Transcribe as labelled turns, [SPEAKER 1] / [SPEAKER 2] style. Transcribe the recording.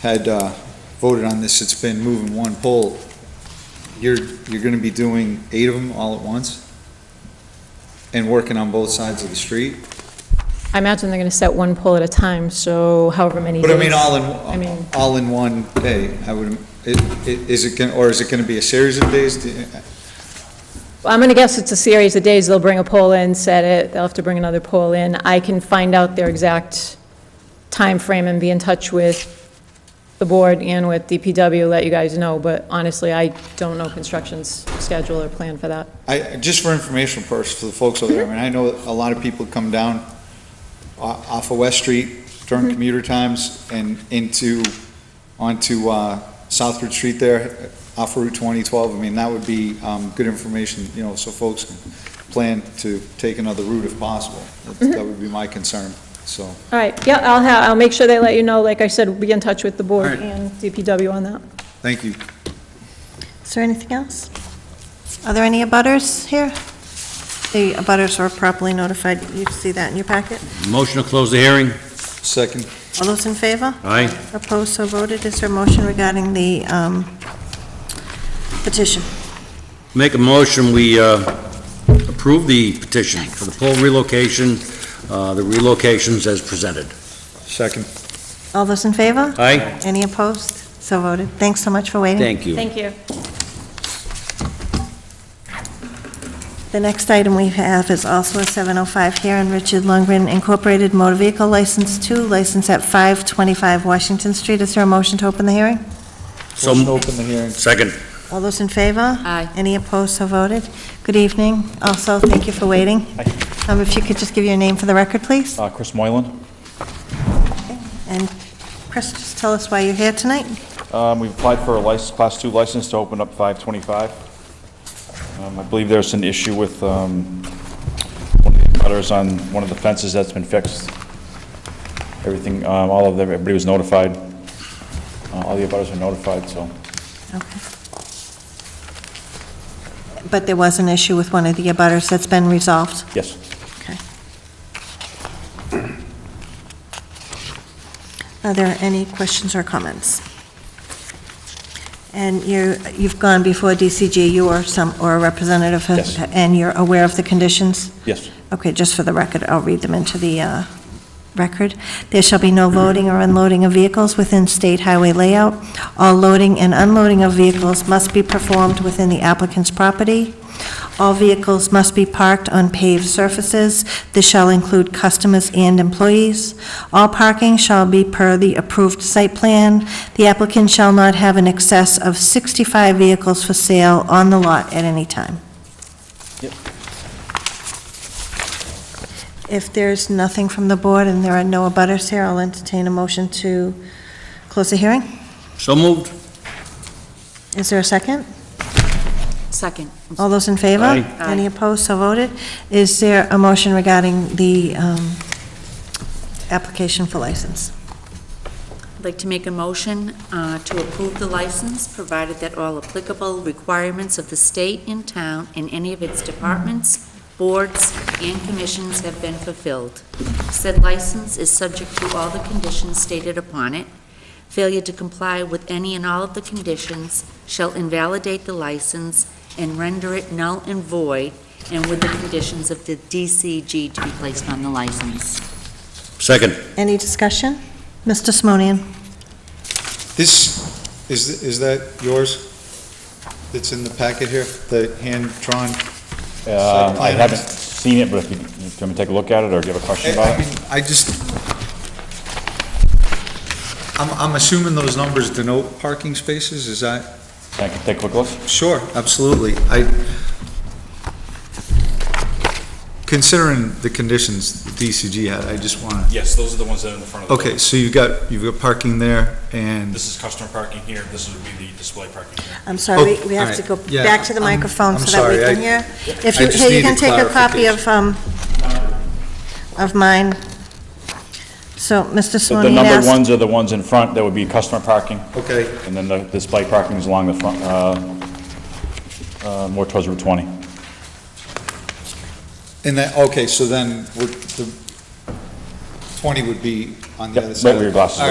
[SPEAKER 1] had uh, voted on this, it's been moving one pole. You're, you're gonna be doing eight of them all at once? And working on both sides of the street?
[SPEAKER 2] I imagine they're going to set one pole at a time, so however many
[SPEAKER 1] But I mean,
[SPEAKER 2] days-
[SPEAKER 1] all
[SPEAKER 2] I mean-
[SPEAKER 1] in, all in one day, I would, it- it- is it, gonna- or is it gonna be a series of days? Do-
[SPEAKER 2] Well, I'm going to guess it's a series of days. They'll bring a pole in, set it, they'll have to bring another pole in. I can find out their exact time frame and be in touch with the board and with DPW, let you guys know, but honestly, I don't know construction's schedule or plan for that.
[SPEAKER 1] I, just for informational purposes for the folks over there, I mean, I know a lot of people come down o- off of West Street during commuter times and into, onto, uh, Southbridge Street there, off of Route twenty twelve. I mean, that would be, um, good information, you know, so folks can plan to take another route if possible. That that would be my concern, so.
[SPEAKER 2] All right, yeah, I'll have, I'll make sure they let you know. Like I said, be in touch with the
[SPEAKER 1] All
[SPEAKER 2] board
[SPEAKER 1] right.
[SPEAKER 2] and DPW on that.
[SPEAKER 1] Thank you.
[SPEAKER 3] Is there anything else? Are there any abutters here? The abutters were properly notified. You see that in your packet?
[SPEAKER 4] Motion to close the hearing?
[SPEAKER 1] Second,
[SPEAKER 3] All those in favor?
[SPEAKER 4] Aye.
[SPEAKER 3] Opposed, so voted. Is there a motion regarding the um, petition?
[SPEAKER 4] Make a motion, we uh, approve the petition for the pole relocation, uh, the relocations as presented.
[SPEAKER 1] second.
[SPEAKER 3] All those in favor?
[SPEAKER 4] Aye?
[SPEAKER 3] Any opposed? So voted. Thanks so much for waiting.
[SPEAKER 4] Thank you.
[SPEAKER 2] Thank you.
[SPEAKER 3] The next item we have is also a 705 here in Richard Lundgren Incorporated Motor Vehicle License 2, license at 525 Washington Street. Is there a motion to open the hearing?
[SPEAKER 4] So-
[SPEAKER 1] Motion to open the hearing.
[SPEAKER 4] Second.
[SPEAKER 3] All those in favor?
[SPEAKER 5] Aye.
[SPEAKER 3] Any opposed, so voted. Good evening. Also, thank you for waiting. Um, If you could just give your name for the record, please.
[SPEAKER 6] Uh, Chris Moylan.
[SPEAKER 3] And Chris, just tell us why you're here tonight.
[SPEAKER 6] Um, We've applied for a license, Class 2 license to open up 525. Um, I believe there's an issue with um, one of the cutters on one of the fences that's been fixed. Everything, um, all of them, everybody was notified. Uh, All the abutters were notified, so.
[SPEAKER 3] Okay. But there was an issue with one of the abutters that's been resolved.
[SPEAKER 6] Yes.
[SPEAKER 3] Okay. Are there any questions or comments? And you, you've gone before DCG, you or some, or a representative? has-
[SPEAKER 6] Yes.
[SPEAKER 3] And you're aware of the conditions?
[SPEAKER 6] Yes.
[SPEAKER 3] Okay, just for the record, I'll read them into the uh, record. There shall be no loading or unloading of vehicles within state highway layout. All loading and unloading of vehicles must be performed within the applicant's property. All vehicles must be parked on paved surfaces. This shall include customers and employees. All parking shall be per the approved site plan. The applicant shall not have an excess of 65 vehicles for sale on the lot at any time. If there's nothing from the board and there are no abutters here, I'll entertain a motion to close the hearing.
[SPEAKER 4] So moved?
[SPEAKER 3] Is there a second?
[SPEAKER 5] Second.
[SPEAKER 3] All those in favor?
[SPEAKER 4] Aye.
[SPEAKER 5] Aye.
[SPEAKER 3] Any opposed, so voted. Is there a motion regarding the um, application for license?
[SPEAKER 5] I'd like to make a motion uh, to approve the license, provided that all applicable requirements of the state and town and any of its departments, boards, and commissions have been fulfilled. Said license is subject to all the conditions stated upon it. Failure to comply with any and all of the conditions shall invalidate the license and render it null and void, and with the conditions of the DCG to be placed on the license.
[SPEAKER 4] Second.
[SPEAKER 3] Any discussion? Mr. Simonian?
[SPEAKER 1] This, is, is that yours? That's in the packet here, the hand-drawn?
[SPEAKER 6] Um, I
[SPEAKER 1] plan.
[SPEAKER 6] haven't seen it, but if you, if you want me to take a look at it, or do you have a question
[SPEAKER 1] I I
[SPEAKER 6] about
[SPEAKER 1] mean,
[SPEAKER 6] it?
[SPEAKER 1] I just, I'm, I'm assuming those numbers denote parking spaces, is that?
[SPEAKER 6] Can I take a quick look?
[SPEAKER 1] Sure, absolutely. I, considering the conditions DCG had, I just wanna,
[SPEAKER 7] Yes, those are the ones that are in the front of the
[SPEAKER 1] okay, so you've got, you've got parking there, and,
[SPEAKER 7] This is customer parking here, this would be the display parking here.
[SPEAKER 3] I'm sorry,
[SPEAKER 1] Oh,
[SPEAKER 3] we- we have to
[SPEAKER 1] alright.
[SPEAKER 3] go
[SPEAKER 1] Yeah,
[SPEAKER 3] back to the
[SPEAKER 1] I'm-
[SPEAKER 3] microphone
[SPEAKER 1] I'm
[SPEAKER 3] so that we
[SPEAKER 1] sorry, I-
[SPEAKER 3] can hear. If
[SPEAKER 1] I
[SPEAKER 3] you,
[SPEAKER 1] just
[SPEAKER 3] here, you can
[SPEAKER 1] needed
[SPEAKER 3] take a copy of, um, of mine. So, Mr.
[SPEAKER 6] So the
[SPEAKER 3] Simonian
[SPEAKER 6] numbered
[SPEAKER 3] asked...
[SPEAKER 6] ones are the ones in front, that would be customer parking.
[SPEAKER 1] okay,
[SPEAKER 6] And then the display parking is along the front, uh, uh, more towards Route 20.
[SPEAKER 1] and then, okay, so then, would the, 20 would be on the
[SPEAKER 6] Yep,
[SPEAKER 1] other side.
[SPEAKER 6] right where your
[SPEAKER 1] All
[SPEAKER 6] glasses are.